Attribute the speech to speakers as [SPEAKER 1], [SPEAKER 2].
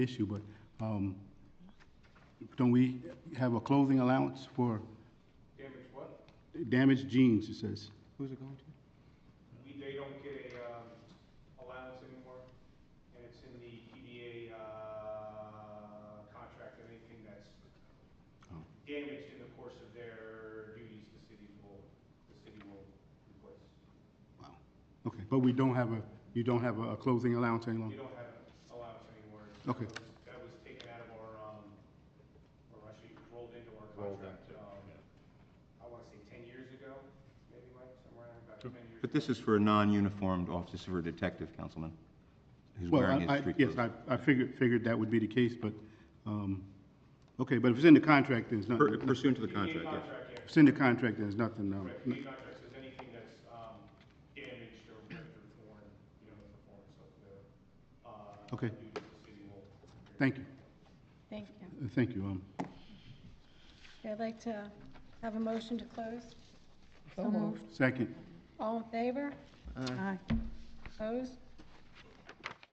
[SPEAKER 1] issue, but um, don't we have a clothing allowance for? Damaged what? Damaged jeans, it says.
[SPEAKER 2] Who's it going to?
[SPEAKER 3] We, they don't get a, um, allowance anymore, and it's in the PDA, uh, contract, that anything that's
[SPEAKER 1] Oh.
[SPEAKER 3] damaged in the course of their duties, the city will, the city will replace.
[SPEAKER 1] Okay, but we don't have a, you don't have a a clothing allowance any
[SPEAKER 3] We
[SPEAKER 1] longer?
[SPEAKER 3] don't have allowance anymore.
[SPEAKER 1] Hmm. Okay.
[SPEAKER 3] That was- That was taken out of our, um, or actually rolled into our contract, um, I wanna say ten years ago, maybe, Mike, somewhere around about ten years.
[SPEAKER 2] But this is for a non-uniformed officer, this is for a detective, Councilman, who's
[SPEAKER 1] Well,
[SPEAKER 2] wearing
[SPEAKER 1] I- I-
[SPEAKER 2] his street
[SPEAKER 1] Yes,
[SPEAKER 2] clothes.
[SPEAKER 1] I, I figured, figured that would be the case, but, um, okay, but if it's in the contract, there's
[SPEAKER 2] Per-
[SPEAKER 1] nothing, if
[SPEAKER 2] Pursuant to the
[SPEAKER 3] The PDA
[SPEAKER 2] contract, yes.
[SPEAKER 3] contract, yeah,
[SPEAKER 1] it's in the contract, there's nothing, um,
[SPEAKER 3] Correct, the contract says anything that's, um, damaged or ripped or torn, you know, the performance of the, uh,
[SPEAKER 1] Okay.
[SPEAKER 3] duties of the city will.
[SPEAKER 1] thank you,
[SPEAKER 4] Thank you.
[SPEAKER 1] Uh, thank you. um,
[SPEAKER 4] Okay, I'd like to have a motion to close. So moved.
[SPEAKER 1] Second,
[SPEAKER 4] All in favor? Aye. Opposed?